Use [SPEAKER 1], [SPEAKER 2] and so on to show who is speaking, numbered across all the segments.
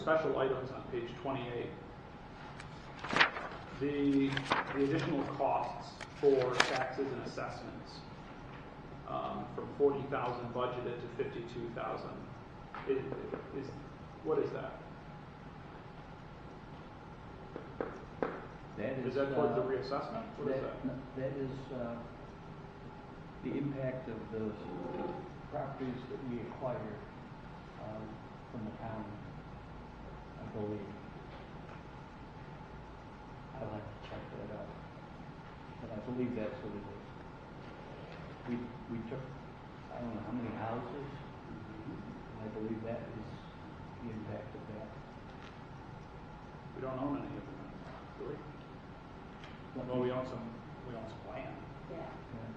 [SPEAKER 1] special items on page 28, the, the additional costs for taxes and assessments, um, from 40,000 budgeted to 52,000, is, is, what is that?
[SPEAKER 2] That
[SPEAKER 1] Is
[SPEAKER 2] is.
[SPEAKER 1] that part of the
[SPEAKER 2] uh,
[SPEAKER 1] reassessment? What is that?
[SPEAKER 2] no, That is, uh, the impact of the properties that we acquired, um, from the county, I believe. I'll have to check that out, but I believe that's what it is. We, we took, I don't know how many houses, and I believe that is the impact of that.
[SPEAKER 1] We don't own any of them, do we? Well, we own some, we own some land.
[SPEAKER 2] Yeah,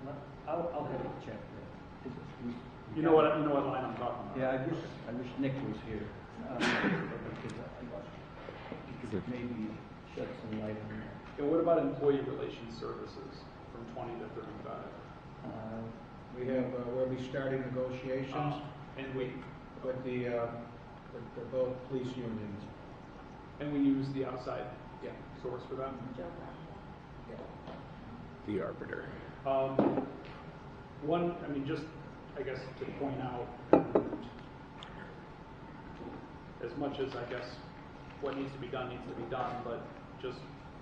[SPEAKER 2] let- I'll, I'll have to check that. Is it- we- we
[SPEAKER 1] You know what,
[SPEAKER 2] got it?
[SPEAKER 1] you know what line I'm talking about?
[SPEAKER 2] Yeah, I wish, I wish Nick was here. um, because I- He could maybe shed some light on that.
[SPEAKER 1] And what about employee relations services from 20 to 35?
[SPEAKER 2] Uh,
[SPEAKER 3] We have, uh, where we started negotiations
[SPEAKER 1] Uh-huh. Um, And we,
[SPEAKER 3] with the, uh, with the both police unions.
[SPEAKER 1] and we use the outside
[SPEAKER 3] Yeah.
[SPEAKER 1] source for that?
[SPEAKER 4] The arbiter.
[SPEAKER 1] Um, One, I mean, just, I guess, to point out, as much as, I guess, what needs to be done needs to be done, but just,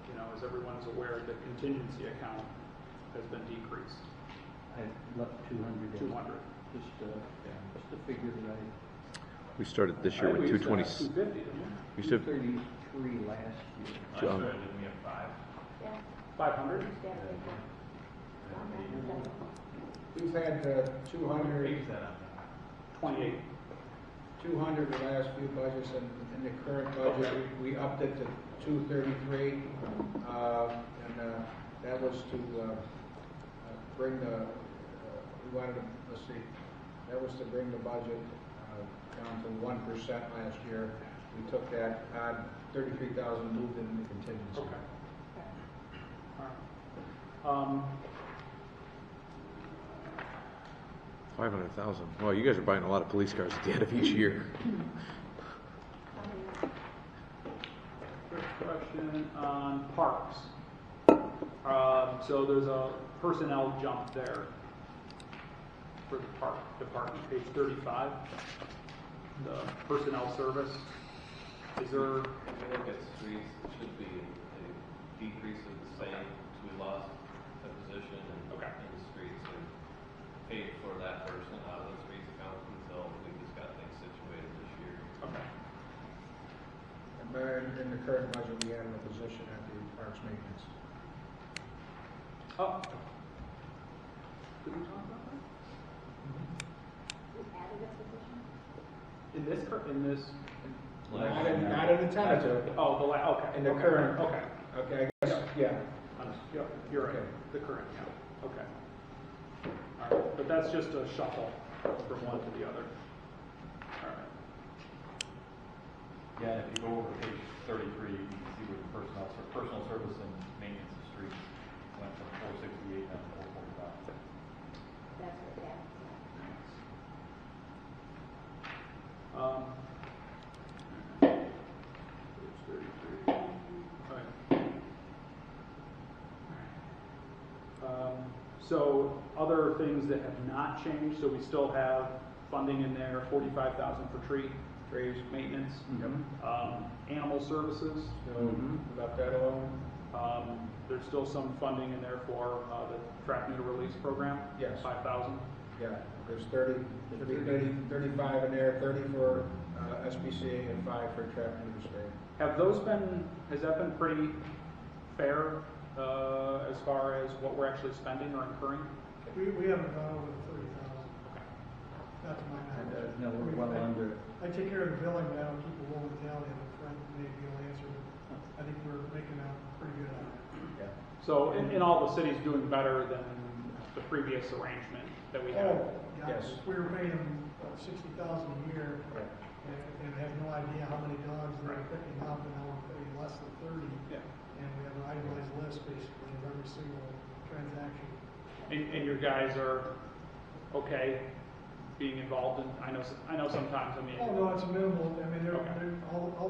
[SPEAKER 1] you know, as everyone's aware, the contingency account has been decreased,
[SPEAKER 2] I left two hundred in,
[SPEAKER 1] 200.
[SPEAKER 2] just, uh, just a figure that I.
[SPEAKER 4] We started this year
[SPEAKER 1] I think
[SPEAKER 4] with
[SPEAKER 1] we used
[SPEAKER 4] two
[SPEAKER 1] to
[SPEAKER 4] twenty.
[SPEAKER 1] have 250, didn't
[SPEAKER 4] We used to have
[SPEAKER 2] Thirty-three last year.
[SPEAKER 4] two- um,
[SPEAKER 1] we? 500?
[SPEAKER 3] We've had, uh, two hundred,
[SPEAKER 1] 28.
[SPEAKER 3] two hundred the last few budgets, and in the current budget, we, we upped it to two thirty-three. Uh, and, uh, that was to, uh, uh, bring the, uh, we wanted to, let's see, that was to bring the budget, uh, down to one percent last year. We took that, uh, thirty-three thousand moved in the contingency.
[SPEAKER 1] Okay. All right. Um,
[SPEAKER 4] five hundred thousand. Wow, you guys are buying a lot of police cars at the end of each year.
[SPEAKER 1] Quick question on parks. Um, so there's a personnel jump there for the park department, page thirty-five. The personnel service, is there,
[SPEAKER 5] If you look at streets, it should be a decrease of the same, because we lost a position in,
[SPEAKER 1] Okay.
[SPEAKER 5] in the streets and paid for that person out of the streets account until we just got things situated this year.
[SPEAKER 1] okay,
[SPEAKER 3] And by- in the current budget, we added a position at the Parks Maintenance.
[SPEAKER 1] oh. Did we talk about that? In this, cur- in this,
[SPEAKER 3] Not in, not in the tentative,
[SPEAKER 1] oh, the la, okay.
[SPEAKER 3] in the
[SPEAKER 1] okay,
[SPEAKER 3] current,
[SPEAKER 1] Okay.
[SPEAKER 3] okay, I guess, yeah.
[SPEAKER 1] Yeah, you're right,
[SPEAKER 3] Okay.
[SPEAKER 1] the current, yeah, okay. All right, but that's just a shuffle from one to the other. All right,
[SPEAKER 6] Yeah, if you go over to page thirty-three, you can see where the personnel, ser- personal service and maintenance of streets went from four sixty-eight down to four forty-five.
[SPEAKER 1] um. Page thirty-three, all right. Um, So other things that have not changed, so we still have funding in there, forty-five thousand for tree, trees, maintenance,
[SPEAKER 2] Mm-hmm.
[SPEAKER 1] um, animal services,
[SPEAKER 3] So, left that alone?
[SPEAKER 1] Um, There's still some funding in there for uh, the track meter release program.
[SPEAKER 3] Yes.
[SPEAKER 1] Five thousand.
[SPEAKER 3] Yeah, there's thirty, should be thirty, thirty-five in there, thirty for, uh, SBCA and five for traffic and state.
[SPEAKER 1] Have those been, has that been pretty fair uh, as far as what we're actually spending or incurring?
[SPEAKER 7] We, we haven't gone over the thirty thousand,
[SPEAKER 1] Okay.
[SPEAKER 7] not to my knowledge.
[SPEAKER 2] No, uh, we're well under, it.
[SPEAKER 7] I take care of the billing now, keep a rolling tally, and Frank may be able to answer, but I think we're making out pretty good on it.
[SPEAKER 1] So, in, in all, the city's doing better than the previous arrangement that we had.
[SPEAKER 7] Oh, yeah,
[SPEAKER 3] Yes.
[SPEAKER 7] we were paying them sixty thousand a year, and, and I have no idea how many dogs they were
[SPEAKER 1] Right.
[SPEAKER 7] picking up, and now we're paying less than thirty,
[SPEAKER 1] Yeah.
[SPEAKER 7] and we have an itemized list basically of every single transaction.
[SPEAKER 1] And, and your guys are okay being involved in, I know, s- I know sometimes, I mean.
[SPEAKER 7] Oh, no, it's minimal, I mean, they're,
[SPEAKER 1] Okay.
[SPEAKER 7] they're, all, all